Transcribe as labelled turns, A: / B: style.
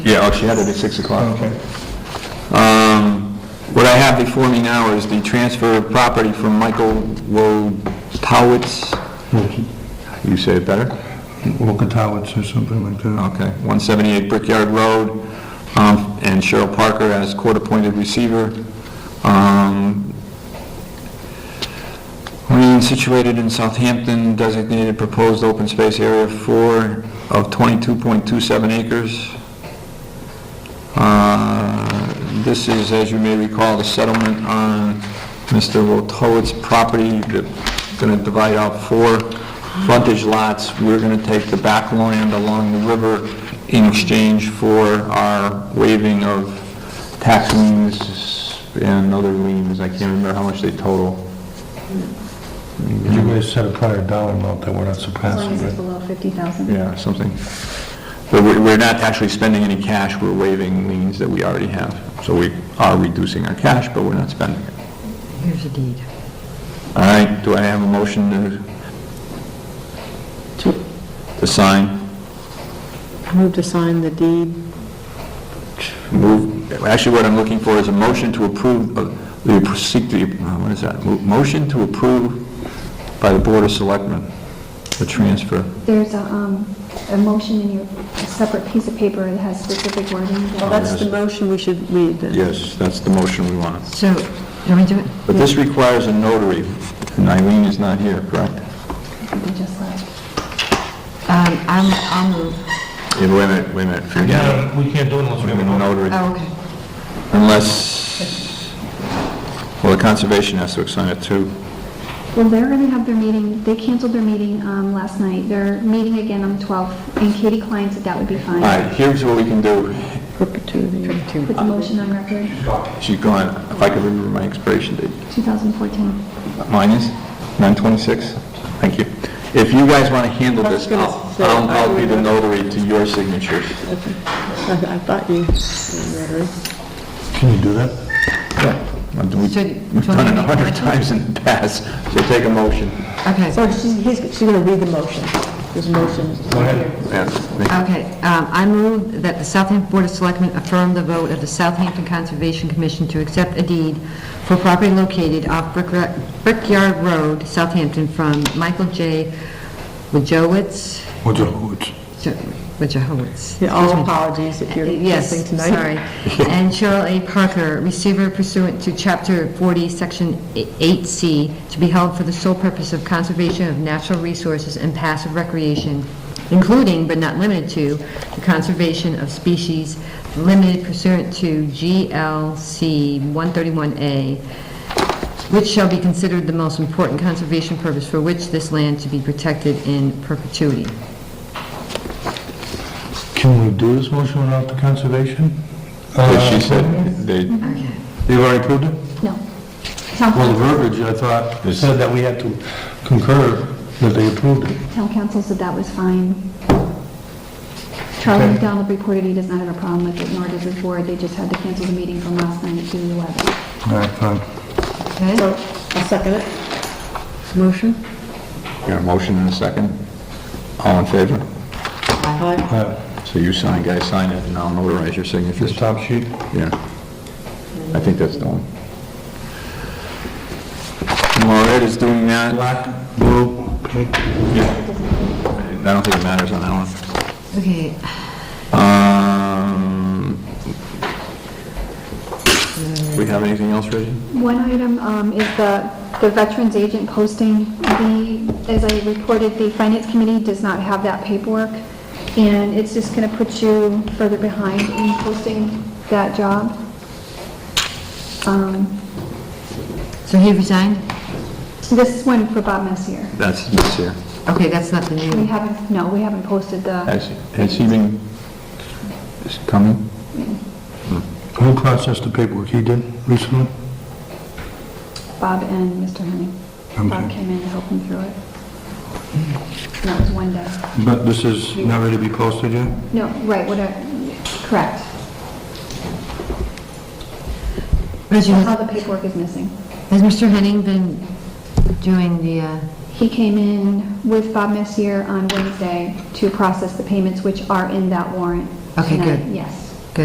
A: Yeah, oh, she had it at 6 o'clock, okay. Um, What I have before me now is the transfer of property from Michael Wojtowicz, you say it better?
B: Walker Towers or something like that.
A: Okay, 178 Brickyard Road, um, and Cheryl Parker as court-appointed receiver. Um, Lien situated in Southampton, designated proposed open space area four of 22.27 acres. Uh, This is, as you may recall, the settlement on Mr. Rotowitz's property, They're going to divide out four frontage lots. We're going to take the back land along the river in exchange for our waiving of tax liens and other liens. I can't remember how much they total.
B: You guys set a prior dollar amount that we're not
C: As long
B: surpassing,
C: as
B: right?
C: it's below 50,000.
A: Yeah, something. But we- we're not actually spending any cash, we're waiving liens that we already have. So we are reducing our cash, but we're not spending it.
D: Here's a deed.
A: All right, do I have a motion to, to sign?
D: Move to sign the deed.
A: Move, actually, what I'm looking for is a motion to approve, of the seek the, uh, what is that? Mo- Motion to approve by the Board of Selectmen, the transfer.
C: There's a, um, a motion in your, a separate piece of paper that has specific wording.
D: Well, that's the motion we should read then.
A: Yes, that's the motion we want.
E: So, you want me to do it?
A: But this requires a notary, and Eileen is not here, correct?
C: that we just left.
E: Um, I'm, I'll move.
A: Yeah, wait a minute, wait a minute, forget it.
B: we can't do it unless
A: We're gonna notary,
E: Oh, okay.
A: unless, well, the conservation has to sign it too.
C: Well, they're gonna have their meeting, they canceled their meeting, um, last night. They're meeting again on the 12th, and Katie Klein said that would be
A: All
C: fine.
A: right, here's what we can do.
D: Perpetuity.
C: Put the motion on record,
A: She's gone, if I can remember my expiration date.
C: 2014.
A: Mine is 9/26. Thank you. If you guys want to handle
D: I was
A: this,
D: gonna
A: I'll
D: say,
A: I'll-
D: I
A: I'll be
D: would-
A: the notary to your signatures.
D: I I thought you,
B: Can you do that?
A: I've done-
E: So, do you
A: We've
E: want
A: done it
E: me
A: a
E: to-
A: hundred times in the past, so take a motion.
E: Okay,
D: so she's, he's, she's gonna read the motion. This motion.
B: Go ahead.
A: Yeah.
E: okay. Um, I move that the Southampton Board of Selectmen affirm the vote of the Southampton Conservation Commission to accept a deed for property located off Brickra- Brickyard Road, Southampton, from Michael J. Wojowitz,
B: What's a hoots?
E: Jo- Wojowitz.
D: Yeah,
E: excuse
D: all
E: me.
D: apologies if you're
E: Yes,
D: listening tonight.
E: sorry. And Cheryl A. Parker, receiver pursuant to Chapter 40, Section 8C, to be held for the sole purpose of conservation of natural resources and passive recreation, including but not limited to the conservation of species limited pursuant to GLC 131A, which shall be considered the most important conservation purpose for which this land to be protected in perpetuity.
B: Can we do this motion without the conservation?
A: Because
B: Uh,
A: she said they,
E: Okay.
B: They've already approved it?
C: No.
B: Well, the
C: Town
B: verbiage, I thought, it said that we had to concur that they approved it.
C: town council said that was fine. Charlie McDonald reported he does not have a problem with it, nor does his board. They just had to cancel the meeting from last night to the 11th.
B: All right, fine.
E: Okay?
D: So, I'll second it. Motion?
A: got a motion and a second? All in favor?
D: Aye.
B: All right,
A: So you sign, guys sign it, and I'll notarize your
B: this
A: signatures.
B: top sheet.
A: Yeah. I think that's the one. Maureen is doing that.
B: Black, blue, pink.
A: I don't think it matters on that one.
E: Okay,
A: Um, we have anything else, Reggie?
C: One item um, is the, the veterans agent posting. The, as I reported, the finance committee does not have that paperwork, and it's just going to put you further behind in posting that job. Um,
E: so he resigned?
C: This one for Bob Messier.
A: That's this year.
E: Okay, that's not the
C: We
E: new,
C: haven't, no, we haven't posted the,
A: Has, has he been, is he coming?
B: Who processed the paperwork? He did recently?
C: Bob and Mr. Henning. Bob
B: Okay.
C: came in to help him through it. And that was one day.
B: But this is not ready to be posted yet?
C: No, right, what, I- correct.
E: Reggie,
C: That's all
E: has
C: the paperwork is missing.
E: has Mr. Henning been doing the, uh,
C: He came in with Bob Messier on Wednesday to process the payments, which are in that warrant.
E: Okay,
C: tonight,
E: good.
C: Yes.